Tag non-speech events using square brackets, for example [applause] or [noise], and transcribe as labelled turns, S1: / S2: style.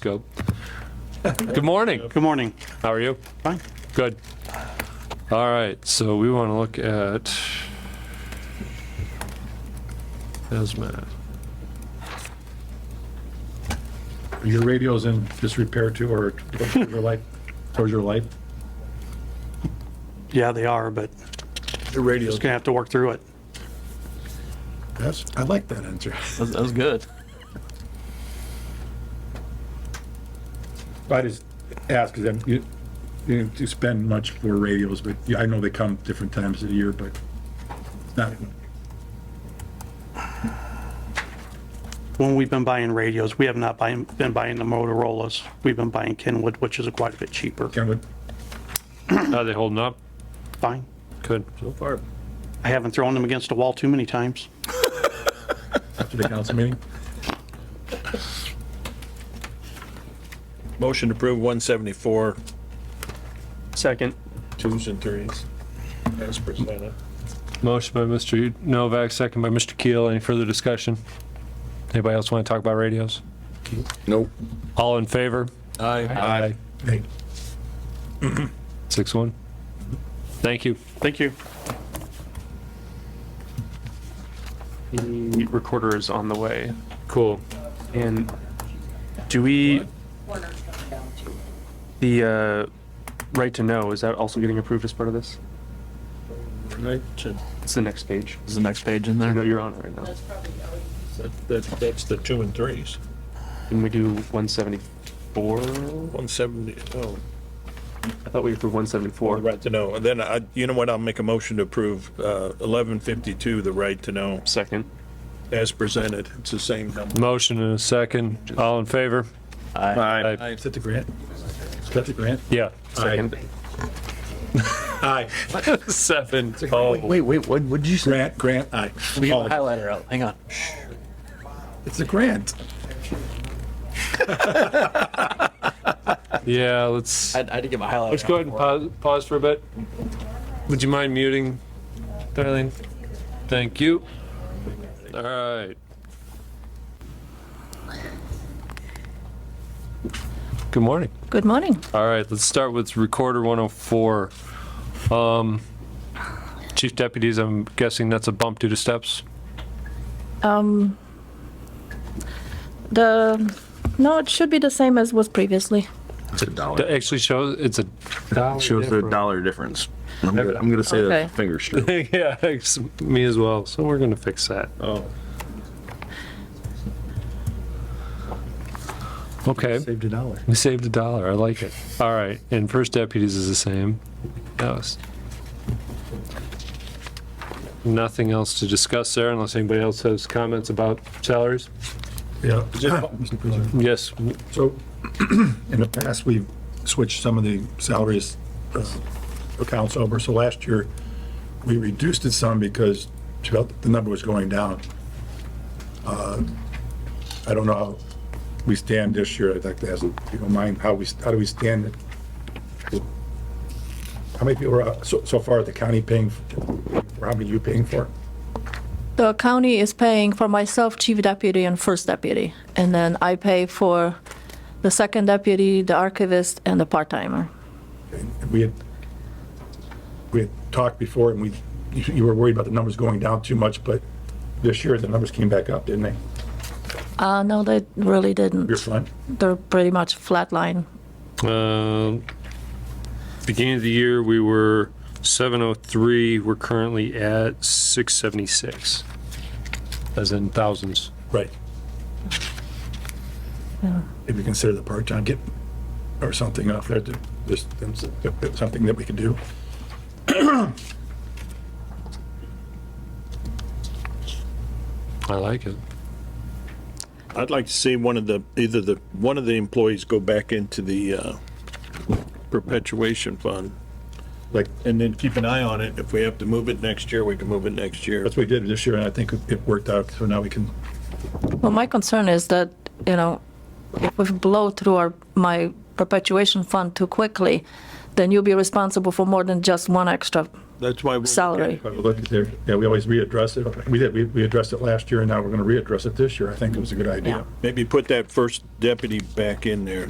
S1: go. Good morning.
S2: Good morning.
S1: How are you?
S2: Fine.
S1: Good. All right, so we want to look at hazmat.
S3: Your radio's in disrepair too, or towards your light, towards your light?
S2: Yeah, they are, but
S3: The radio's.
S2: just gonna have to work through it.
S3: That's, I like that answer.
S4: That that was good.
S3: I just ask, because I'm, you, you didn't spend much for radios, but yeah, I know they come different times of the year, but it's not,
S2: When we've been buying radios, we have not buying, been buying the Motorola's. We've been buying Kenwood, which is quite a bit cheaper.
S3: kind of,
S1: Are they holding up?
S2: Fine.
S1: Good. So far.
S2: I haven't thrown them against the wall too many times.
S3: after the council meeting.
S5: Motion to approve 174,
S4: Second.
S5: twos and threes, as presented.
S1: Motion by Mr. Novak, second by Mr. Keel. Any further discussion? Anybody else want to talk about radios?
S5: Nope.
S1: All in favor?
S5: Aye.
S1: Aye.
S3: Hey,
S1: Six one. Thank you.
S2: Thank you.
S4: The recorder is on the way.
S1: Cool.
S4: And do we,
S6: corner's coming down too.
S4: the uh, right to know, is that also getting approved as part of this?
S5: Right, to-
S4: It's the next page.
S7: Is the next page in
S4: I know
S7: there?
S4: you're on it right now.
S6: That's probably already
S5: that- that- That's the two and threes.
S4: Can we do 174?
S5: 170, oh,
S4: I thought we approved 174.
S5: right to know. And then, I- you know what, I'll make a motion to approve uh, 1152, the right to know,
S4: Second.
S5: as presented. It's the same number.
S1: Motion and a second. All in favor? Aye.
S3: Is that the grant? Is that the grant?
S1: Yeah. [laughs]
S4: Second.
S3: Aye.
S1: Seven.
S7: Wait, wait, what, what'd you say?
S3: Grant, grant, aye.
S7: We got
S3: Oh,
S7: the highlighter out, hang on.
S3: It's a grant.
S1: Yeah, let's.
S7: I I had to get my highlighter.
S1: Let's go ahead and pause, pause for a bit. Would you mind muting, Darlene? Thank you. All right. Good morning.
S8: Good morning.
S1: All right, let's start with Recorder 104. Um, Chief Deputies, I'm guessing that's a bump due to steps?
S8: Um, the no, it should be the same as was previously.
S9: It's a dollar.
S1: That actually shows, it's a,
S9: Shows a dollar difference. I'm gonna, I'm gonna say
S8: Okay.
S9: that's a finger stroke.
S1: [laughs] yeah, it's me as well, so we're gonna fix that.
S3: Oh.
S1: Okay.
S3: Saved a dollar.
S1: We saved a dollar. I like it. All right. And first deputies is the same. That was- Nothing else to discuss there unless anybody else has comments about salaries?
S3: Yeah. Mr. President.
S1: Yes.
S3: So, [clears throat] in the past, we've switched some of the salaries uh, accounts over, so last year, we reduced it some because she felt the number was going down. Uh, I don't know how we stand this year, I'd like to ask, if you don't mind, how we, how do we stand? How many people are, uh, so, so far, the county paying, for- how many you paying for?
S8: The county is paying for myself, chief deputy, and first deputy, and then I pay for the second deputy, the archivist, and the part timer.
S3: we had, we had talked before and we, you you were worried about the numbers going down too much, but this year the numbers came back up, didn't they?
S8: Uh, no, they really didn't.
S3: Your fund?
S8: They're pretty much flatline.
S1: Um, Beginning of the year, we were 703. We're currently at 676. As in thousands.
S3: Right.
S8: Yeah.
S3: If you consider the part-time get, or something off there, to- just that's something that we could do.
S1: I like it.
S5: I'd like to see one of the, either the, one of the employees go back into the uh, perpetuation fund.
S3: Like,
S5: And then keep an eye on it. If we have to move it next year, we can move it next year.
S3: that's what we did this year and I think it worked out, so now we can,
S8: Well, my concern is that, you know, if we blow through our, my perpetuation fund too quickly, then you'll be responsible for more than just one extra
S5: That's why. we-
S8: salary.
S3: But we look at there, yeah, we always readdress it. We did, we, we addressed it last year and now we're gonna readdress it this year. I think it was a good idea.
S5: Maybe put that first deputy back in there.